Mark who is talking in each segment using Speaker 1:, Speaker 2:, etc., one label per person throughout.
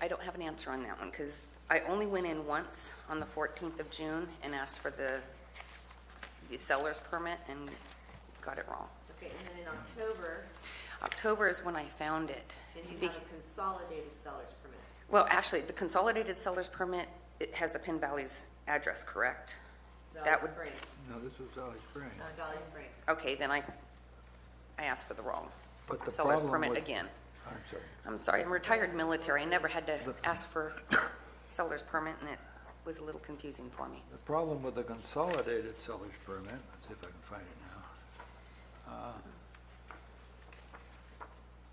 Speaker 1: I don't have an answer on that one, because I only went in once on the 14th of June and asked for the, the seller's permit and got it wrong.
Speaker 2: Okay, and then in October,
Speaker 1: October is when I found it.
Speaker 2: and you
Speaker 1: Be-
Speaker 2: have a consolidated seller's permit.
Speaker 1: Well, actually, the consolidated seller's permit, it has the Pin Valley's address, correct? That
Speaker 2: Valley
Speaker 1: would,
Speaker 2: Springs,
Speaker 3: No, this was Valley Springs.
Speaker 2: uh, Valley Springs.
Speaker 1: okay, then I, I asked for the wrong
Speaker 3: But the
Speaker 1: seller's
Speaker 3: problem
Speaker 1: permit
Speaker 3: with-
Speaker 1: again.
Speaker 3: I'm sorry.
Speaker 1: I'm sorry, I'm retired military, I never had to ask for seller's permit, and it was a little confusing for me.
Speaker 3: The problem with the consolidated seller's permit, let's see if I can find it now, uh,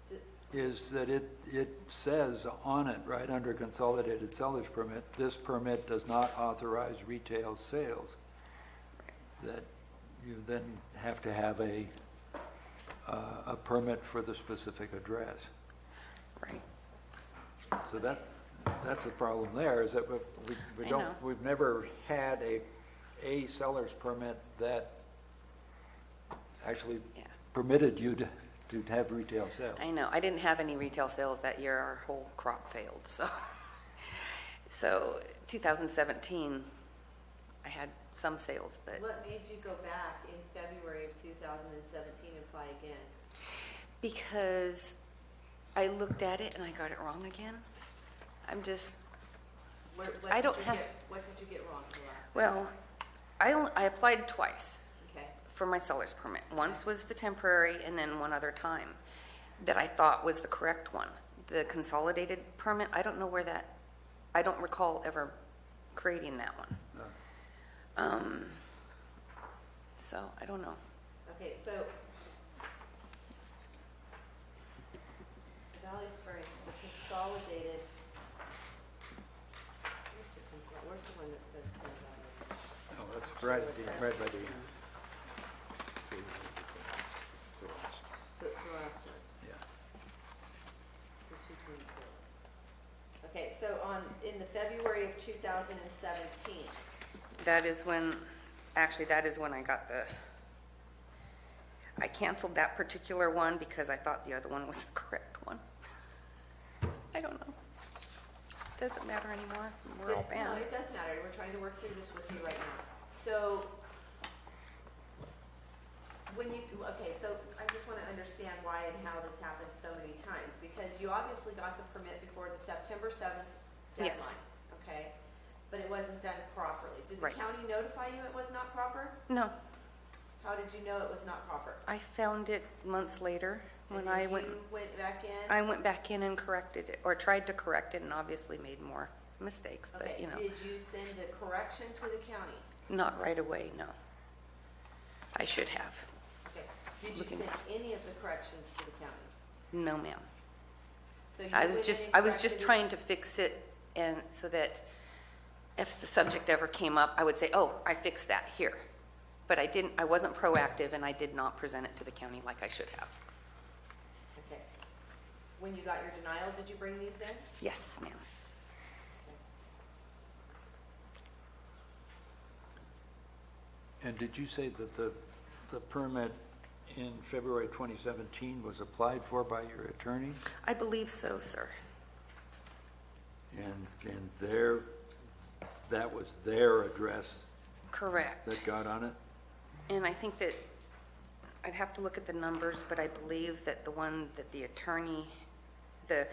Speaker 2: So-
Speaker 3: is that it, it says on it, right under consolidated seller's permit, this permit does not authorize retail sales. That you then have to have a, uh, a permit for the specific address.
Speaker 1: Right.
Speaker 3: So that, that's the problem there, is that we, we- we
Speaker 1: I know.
Speaker 3: don't, we've never had a, a seller's permit that actually
Speaker 1: Yeah.
Speaker 3: permitted you to, to have retail sales.
Speaker 1: I know, I didn't have any retail sales that year, our whole crop failed, so. So 2017, I had some sales, but
Speaker 2: What made you go back in February of 2017 and apply again?
Speaker 1: because I looked at it and I got it wrong again, I'm just,
Speaker 2: Where- what
Speaker 1: I
Speaker 2: did
Speaker 1: don't
Speaker 2: you
Speaker 1: have-
Speaker 2: get- What did you get wrong the last? time?
Speaker 1: well, I, only- I applied twice.
Speaker 2: Okay,
Speaker 1: for my seller's permit. Once was the temporary, and then one other time that I thought was the correct one. The consolidated permit, I don't know where that, I don't recall ever creating that one. Um, So, I don't know.
Speaker 2: okay, so Valley Springs, the consolidated, where's the consol, where's the one that says Penn Valley?
Speaker 3: No, Oh, that's right at the, right by the,
Speaker 1: Mm-hmm.
Speaker 2: So it's the last one.
Speaker 3: yeah.
Speaker 2: Okay, so on, in the February of 2017,
Speaker 1: That is when, actually, that is when I got the, I canceled that particular one because I thought the other one was the correct one. I don't know. Doesn't matter anymore. We're all
Speaker 2: It- No,
Speaker 1: bound.
Speaker 2: it does matter, we're trying to work through this with you right now. So, when you, okay, so I just want to understand why and how this happened so many times, because you obviously got the permit before the September 7th deadline.
Speaker 1: Yes.
Speaker 2: Okay, but it wasn't done properly. Did the
Speaker 1: Right.
Speaker 2: county notify you it was not proper?
Speaker 1: No,
Speaker 2: How did you know it was not proper?
Speaker 1: I found it months later when
Speaker 2: And then
Speaker 1: I went,
Speaker 2: you went back in?
Speaker 1: I went back in and corrected it, or tried to correct it and obviously made more mistakes, but
Speaker 2: Okay,
Speaker 1: you know,
Speaker 2: did you send the correction to the county?
Speaker 1: not right away, no. I should have.
Speaker 2: Okay, did you
Speaker 1: Looking-
Speaker 2: send any of the corrections to the county?
Speaker 1: No, ma'am.
Speaker 2: So you
Speaker 1: I was
Speaker 2: went in
Speaker 1: just,
Speaker 2: and
Speaker 1: I was just
Speaker 2: corrected it?
Speaker 1: trying to fix it and so that if the subject ever came up, I would say, oh, I fixed that here. But I didn't, I wasn't proactive and I did not present it to the county like I should have.
Speaker 2: Okay. When you got your denial, did you bring these in?
Speaker 1: Yes, ma'am.
Speaker 3: And did you say that the, the permit in February 2017 was applied for by your attorney?
Speaker 1: I believe so, sir.
Speaker 3: And, and their, that was their address
Speaker 1: Correct.
Speaker 3: that got on it?
Speaker 1: And I think that, I'd have to look at the numbers, but I believe that the one that the attorney, the,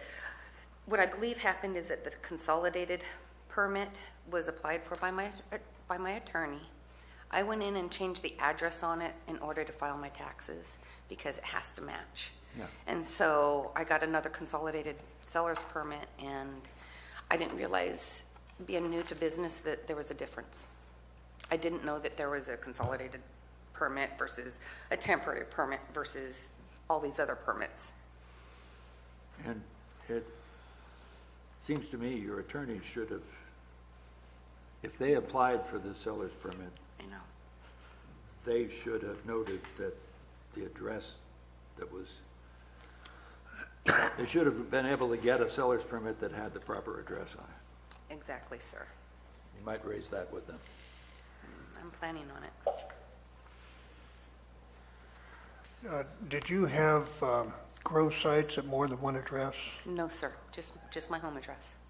Speaker 1: what I believe happened is that the consolidated permit was applied for by my, by my attorney. I went in and changed the address on it in order to file my taxes because it has to match.
Speaker 3: Yeah.
Speaker 1: And so I got another consolidated seller's permit and I didn't realize, being new to business, that there was a difference. I didn't know that there was a consolidated permit versus a temporary permit versus all these other permits.
Speaker 3: And it seems to me your attorney should have, if they applied for the seller's permit,
Speaker 1: I know.
Speaker 3: they should have noted that the address that was, they should have been able to get a seller's permit that had the proper address on it.
Speaker 1: Exactly, sir.
Speaker 3: You might raise that with them.
Speaker 1: I'm planning on it.
Speaker 4: Uh, Did you have um, grow sites at more than one address?
Speaker 1: No, sir, just, just my home address.